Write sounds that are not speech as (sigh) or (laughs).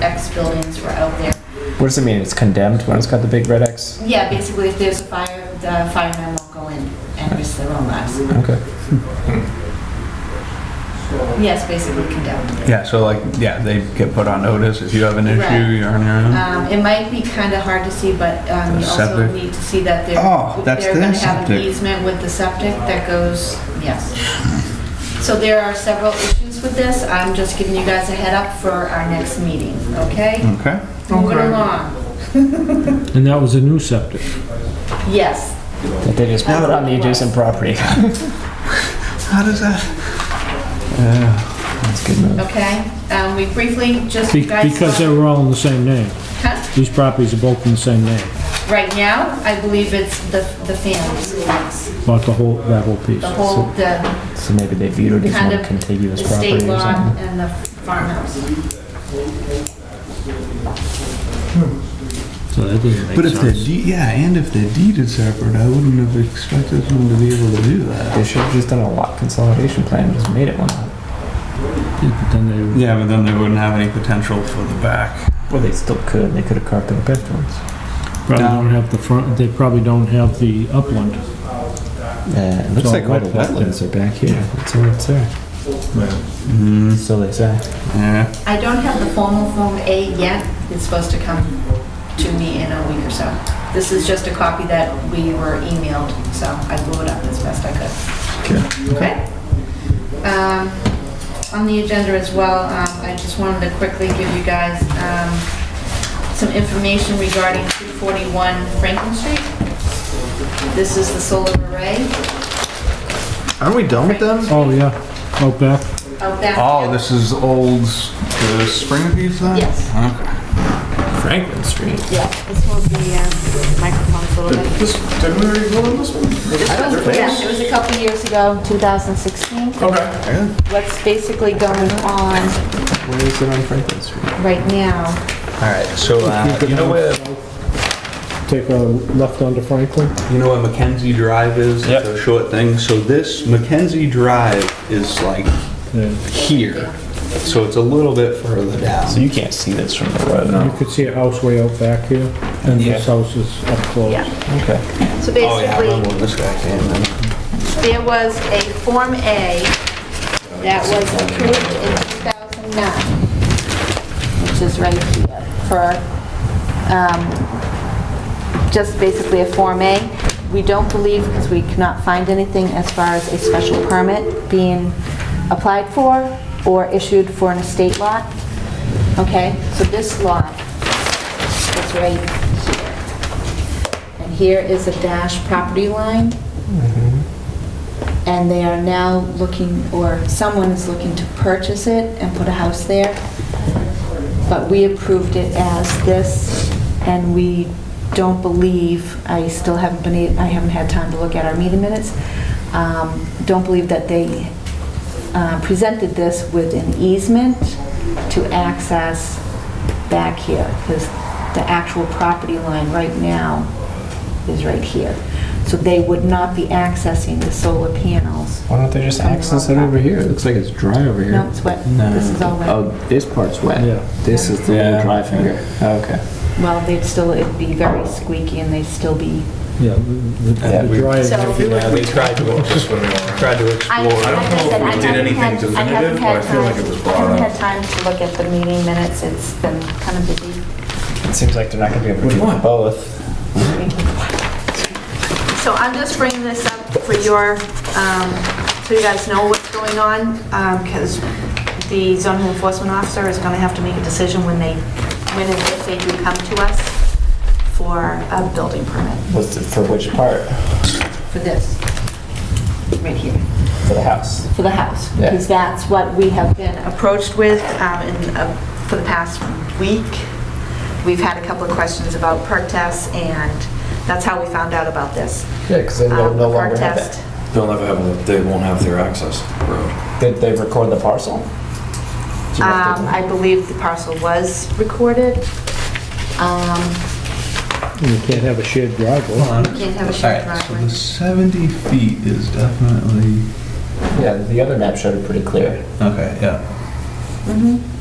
X buildings were out there. What does it mean? It's condemned when it's got the big red X? Yeah, basically, if there's a fire, the firemen won't go in and risk their own lives. Okay. Yes, basically condemned. Yeah, so like, yeah, they get put on notice. If you have an Right. issue, you're on your own. Um, it might be kind of hard to see, but, um, you Hmm. The also septic? need to see that they're. Oh, that's They're gonna their have an septic. easement with the septic that goes, yes. So there are several issues with this. I'm just giving you guys a head up for our next meeting, okay? Okay. Moving along. And that was a new septic. Yes, That they just put it on the adjacent property. How does that? Oh, That's good move. okay? Um, we briefly just. Be- guys- uh, Because they were all in the same name. Huh? These properties are both in the same name, Right now, I believe it's the, the families, bought the whole, that whole piece. the whole, the So maybe they viewed it Kind as one of the contiguous property or state law something. and the farmhouse. So that doesn't But make if the sense. deed, yeah, and if the deed is separate, I wouldn't have expected them to be able to do that. They should have just done a lot consolidation plan and just made it one. Yeah, but Then they, Yeah, but then they wouldn't have any potential for the back. Well, they still could. They could have carved it up afterwards. probably don't have the front, they probably don't have the upland. Yeah, it looks all like all wet the wetlands. wetlands are back here. Mm-hmm. That's all it's there. Mm, So they say. yeah. I don't have the formal Form A yet. It's supposed to come to me in a week or so. This is just a copy that we were emailed, so I blew it up as best I could. Okay? Um, On the agenda as well, um, I just wanted to quickly give you guys um, some information regarding 241 Franklin Street. This is the solar array Aren't we done with them? Oh, yeah, out back. out back. Oh, this is old, s- the spring piece then? Yes. Okay. Franklin Street. Yeah, this will be um, microphones a little bit. This, did we already vote on this one? This was- Yeah, it was a couple years ago, 2016. Okay. What's basically going on Where is it on Franklin Street? right now? All right, so, uh, you know where, Take a left onto Franklin. you know where Mackenzie Drive is? It's a short thing. So this Mackenzie Drive is like Yeah, here. So it's a little bit further down. So you can't see this from the road. you could see a house way out back here, and this house is up close. Yeah. Okay. So Oh, yeah, I remember basically, when this guy came in. there was a Form A that was approved in 2009, which is right here, for, um, just basically a Form A. We don't believe, because we cannot find anything as far as a special permit being applied for or issued for an estate lot. Okay, so this lot is right here. And here is a dash property line. And they are now looking, or someone is looking to purchase it and put a house there. But we approved it as this, and we don't believe, I still haven't been, I haven't had time to look at our meeting minutes, um, don't believe that they uh, presented this with an easement to access back here, because the actual property line right now is right here. So they would not be accessing the solar panels. Why don't they just From the access it road. over here? It looks like it's dry over here. No, it's wet. This is all wet. Oh, this part's wet. Yeah. This is the Yeah. little dry finger. Okay. Well, they'd still, it'd be very squeaky and they'd still be. Yeah, the- Yeah, the- the we- drive. So- Yeah, they tried (laughs) to, Just when we were- tried to I explore. don't know if we did anything definitive, but I feel like it was brought I haven't up. had time to look at the meeting minutes. It's been kind of busy. It seems like they're not going to be able to do both. So I'm just bringing this up for your, um, so you guys know what's going on, because the zoning enforcement officer is going to have to make a decision when they, when and if they do come to us for a building permit What's the, for which part? for this, right here. For the house. for the house, Yeah. because that's what we have been approached with um, in, uh, for the past week. We've had a couple of questions about perk tests, and that's how we found out about this. Yeah, because they Um, the perk test. They'll never have, they won't have their access road. Did they record the parcel? Do you have to- Um, I believe the parcel was recorded. Um, And you can't have a shared driveway. Can't have a shared Alright, so driveway. the 70 feet is definitely, yeah, the other map showed it pretty clear. okay, yeah. mhm.